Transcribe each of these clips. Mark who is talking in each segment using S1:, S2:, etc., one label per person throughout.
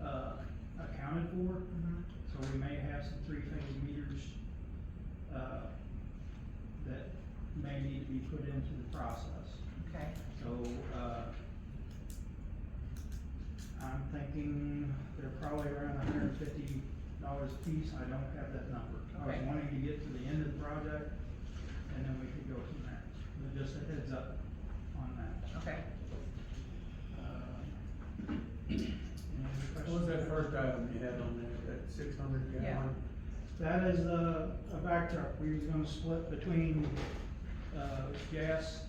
S1: done uh, for,
S2: Mm-hmm.
S1: so we may have some three-phase meters, uh, that may need to be put into the process.
S2: Okay,
S1: So, uh, I'm thinking they're probably around hundred and fifty dollars a piece, I don't have that number. I was
S2: Okay.
S1: wanting to get to the end of the project, and then we could go from there, but just a heads up on that.
S2: okay.
S1: Uh, any other
S3: What was
S1: questions?
S3: that first item you had on there, that six hundred
S2: Yeah.
S3: gallon?
S1: That is a, a back truck, we was gonna split between, uh, gas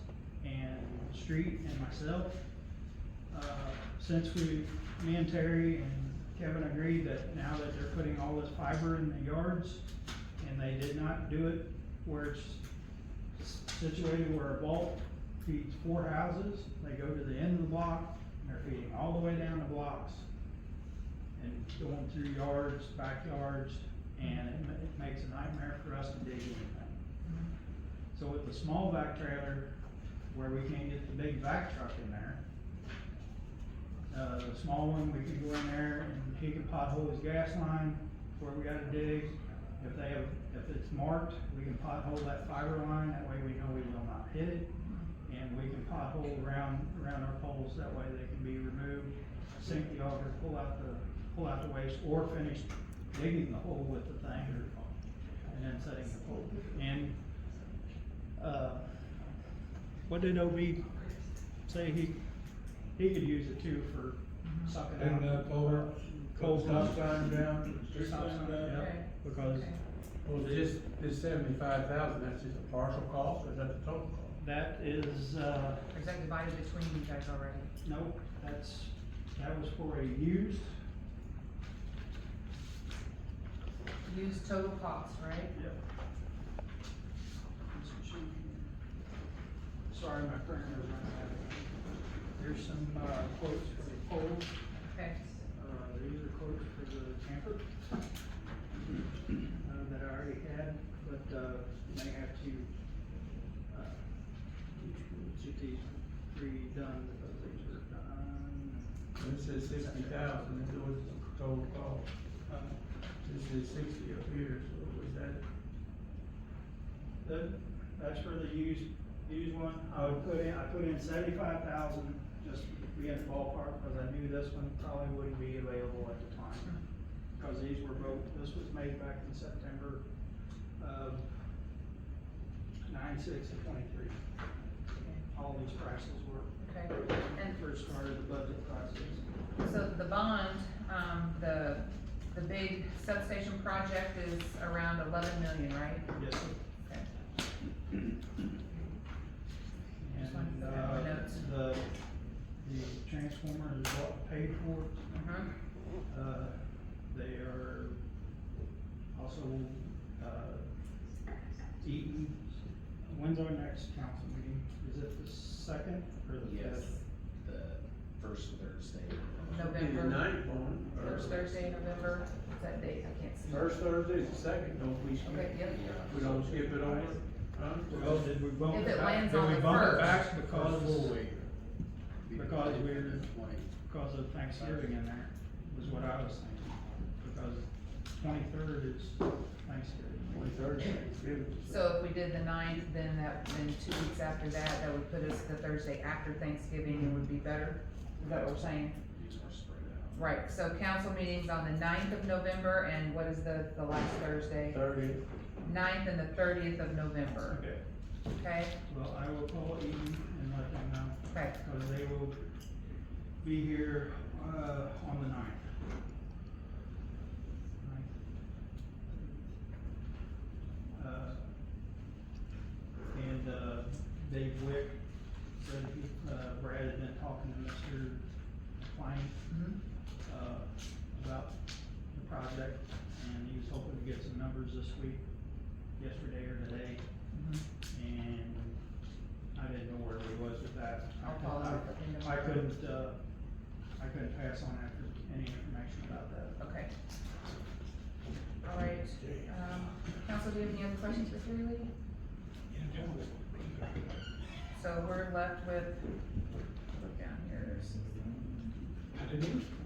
S1: and street and myself. Uh, since we, me and Terry and Kevin agreed that now that they're putting all this fiber in the yards, and they did not do it where it's situated where a vault feeds four houses, they go to the end of the block, and they're feeding all the way down the blocks. And going through yards, backyards, and it ma- it makes a nightmare for us to dig anything. So with the small back trailer, where we can't get the big back truck in there, uh, the small one, we can go in there and he can pothole his gas line where we gotta dig. If they have, if it's marked, we can pothole that fiber line, that way we know we will not hit it. And we can pothole around, around our poles, that way they can be removed, sink the auger, pull out the, pull out the waste, or finish digging the hole with the thing or, and then setting the pole. And, uh, what did OB say he, he could use it too for sucking out.
S3: Didn't that pole,
S1: Cold
S3: cold
S1: stuff.
S3: uh, stop sign down?
S1: Stop sign, yeah,
S2: Okay.
S1: because
S2: Okay.
S3: Well, this, this seventy-five thousand, that's just a partial cost, or is that the total cost?
S1: that is, uh,
S2: Is that divided between you guys already?
S1: nope, that's, that was for a used,
S2: Use total cost, right?
S1: yep. Sorry, my printer is running out. Here's some, uh, quotes for the poles,
S2: Okay,
S1: uh, these are quotes for the camper. Uh, that I already had, but, uh, may have to, uh, get these redone because these are done.
S3: This is sixty thousand, and it was the total cost.
S1: Uh,
S3: This is sixty up here, so was that,
S1: That, that's for the used, used one, I would put in, I put in seventy-five thousand, just to be in the ballpark, cause I knew this one probably wouldn't be available at the time.
S2: Mm-hmm.
S1: Cause these were both, this was made back in September of nine-six and twenty-three. All these prices were,
S2: okay.
S1: when
S2: And
S1: we first started the budget prices.
S2: so the bond, um, the, the big substation project is around eleven million, right?
S1: Yes, sir.
S2: Okay. Just wanted
S1: And,
S2: to fill out my
S1: uh,
S2: notes.
S1: the, the transformer is what paid for,
S2: Uh-huh,
S1: Uh, they are also, uh, Eaton, when's our next council meeting? Is it the second or the
S4: Yes,
S1: fifth?
S4: the first Thursday.
S3: be the
S2: November,
S3: ninth one? or-
S2: first Thursday, November, what's that date? I can't see.
S3: First Thursday, the second, don't we
S2: Okay,
S3: skip?
S2: yep.
S3: We don't skip it over? Huh?
S1: Well, did we bump
S2: If
S1: it
S2: it
S1: back?
S2: lands
S1: Did
S2: on
S1: we
S2: the
S1: bump it
S2: first.
S1: back because,
S4: Because we're.
S1: because of Thanksgiving in there, was what I was thinking. Because twenty-third is Thanksgiving.
S3: Twenty-third, Thanksgiving.
S2: So if we did the ninth, then that, then two weeks after that, that would put us the Thursday after Thanksgiving and would be better? Is that what we're saying?
S4: These are spread out.
S2: Right, so council meeting's on the ninth of November, and what is the, the last Thursday?
S3: Thirty,
S2: Ninth and the thirtieth of November,
S1: Okay,
S2: okay?
S1: well, I will call Eaton and let them know.
S2: Okay,
S1: Because they will be here, uh, on the ninth. Uh, And, uh, Dave Wick, Brad, uh, Brad had been talking to Mr. Klein,
S2: mhm,
S1: uh, about the project, and he was hoping to get some numbers this week, yesterday or today.
S2: mhm.
S1: And I didn't know where we was with that. I
S2: I'll follow
S1: couldn't-
S2: up with him
S1: I
S2: tomorrow.
S1: couldn't, uh, I couldn't pass on after any information about that.
S2: Okay. All right, um, council, do you have any other questions for Terry Lee? So we're left with, look down here, there's-